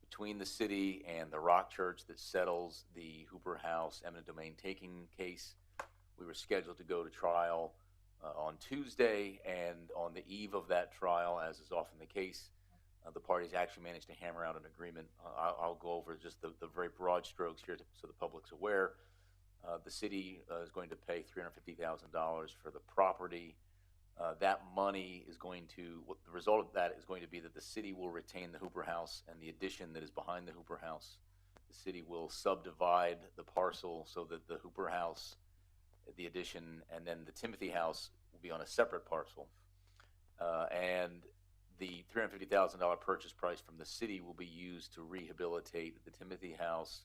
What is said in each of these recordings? between the city and the Rock Church that settles the Hooper House eminent domain taking case. We were scheduled to go to trial uh, on Tuesday, and on the eve of that trial, as is often the case, uh, the parties actually managed to hammer out an agreement. Uh, I'll, I'll go over just the, the very broad strokes here so the public's aware. Uh, the city uh, is going to pay $350,000 for the property. Uh, that money is going to, what the result of that is going to be that the city will retain the Hooper House and the addition that is behind the Hooper House. The city will subdivide the parcel so that the Hooper House, the addition, and then the Timothy House will be on a separate parcel. Uh, and the $350,000 purchase price from the city will be used to rehabilitate the Timothy House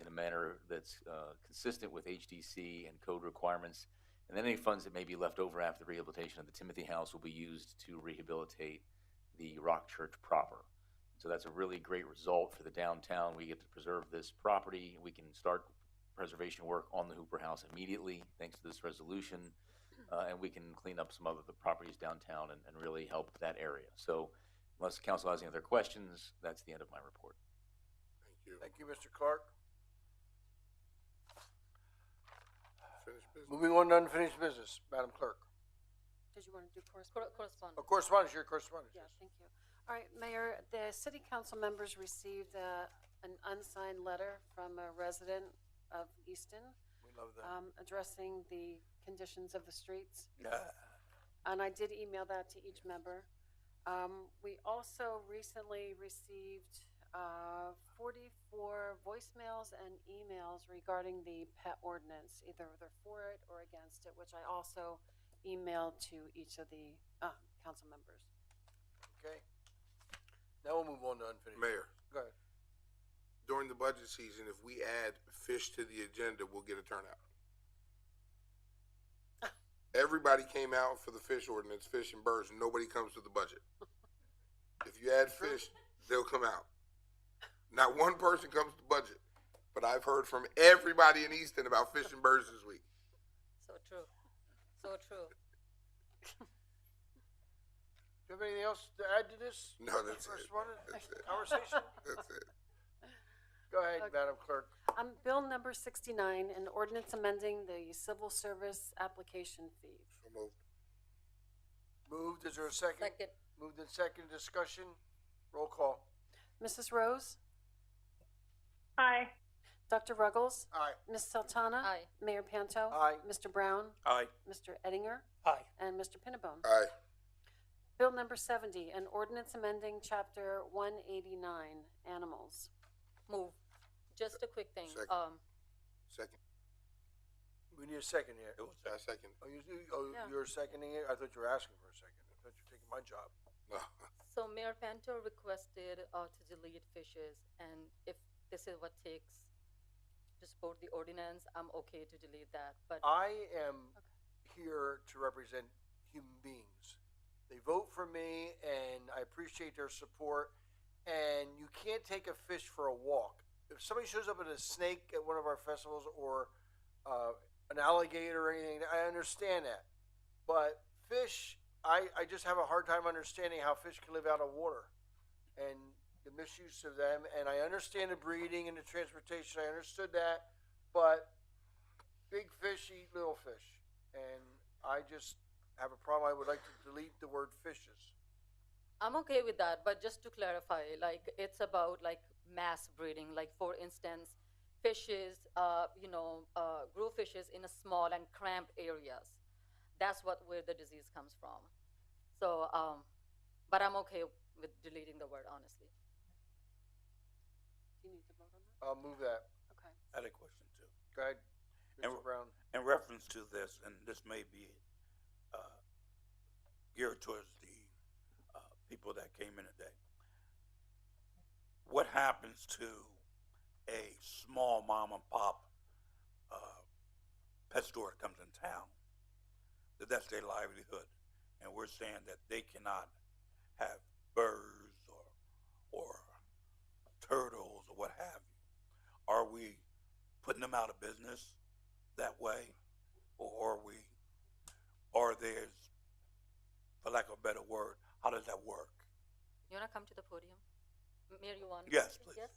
in a manner that's uh, consistent with HDC and code requirements. And then any funds that may be left over after the rehabilitation of the Timothy House will be used to rehabilitate the Rock Church proper. So that's a really great result for the downtown. We get to preserve this property. We can start preservation work on the Hooper House immediately, thanks to this resolution. Uh, and we can clean up some of the properties downtown and, and really help that area. So unless council has any other questions, that's the end of my report. Thank you. Thank you, Mr. Clark. Finished business? Moving on to unfinished business, Madam Clerk. Did you want to do correspondence? Correspondence. Oh, correspondence, your correspondence. Yeah, thank you. All right, Mayor, the city council members received uh, an unsigned letter from a resident of Easton We love that. um, addressing the conditions of the streets. Yeah. And I did email that to each member. Um, we also recently received, uh, forty-four voicemails and emails regarding the pet ordinance. Either they're for it or against it, which I also emailed to each of the, uh, council members. Okay. Now we'll move on to unfinished. Mayor, Go ahead. during the budget season, if we add fish to the agenda, we'll get a turnout. Everybody came out for the fish ordinance, fish and birds, nobody comes to the budget. If you add fish, they'll come out. Not one person comes to budget, but I've heard from everybody in Easton about fish and birds this week. So true. So true. Do you have anything else to add to this? No, that's it. Correspondence? That's it. Conversation? That's it. Go ahead, Okay. Madam Clerk. Um, bill number sixty-nine, an ordinance amending the civil service application fee. So moved. Moved, is there a second? Second. Moved in second, discussion, roll call. Mrs. Rose? Aye. Dr. Ruggles? Aye. Ms. Sultana? Aye. Mayor Panto? Aye. Mr. Brown? Aye. Mr. Eddinger? Aye. And Mr. Pinnabone? Aye. Bill number seventy, an ordinance amending chapter one eighty-nine, animals. Move. Just a quick thing. Second. Um, Second. We need a second here. I second. Oh, you, oh, Yeah. you're seconding it? I thought you were asking for a second. I thought you were taking my job. No. so Mayor Panto requested uh, to delete fishes, and if this is what takes to support the ordinance, I'm okay to delete that. But I am here to represent human beings. They vote for me, and I appreciate their support. And you can't take a fish for a walk. If somebody shows up with a snake at one of our festivals or uh, an alligator or anything, I understand that. But fish, I, I just have a hard time understanding how fish can live out of water and the misuse of them. And I understand the breeding and the transportation. I understood that. But big fish eat little fish, and I just have a problem. I would like to delete the word fishes. I'm okay with that. But just to clarify, like it's about like mass breeding. Like for instance, fishes, uh, you know, uh, grow fishes in a small and cramped areas. That's what where the disease comes from. So, um, but I'm okay with deleting the word honestly. You need to vote on I'll move that. that? Okay. I had a question too. Go ahead, Mr. And- Brown. In reference to this, and this may be uh, geared towards the uh, people that came in today. What happens to a small mom and pop uh, pet store that comes in town? That that's their livelihood, and we're saying that they cannot have birds or or turtles or what have you. Are we putting them out of business? that way, or are we, or there's, for lack of a better word, how does that work? You wanna come to the podium? Mayor, you want? Yes, please. Yes?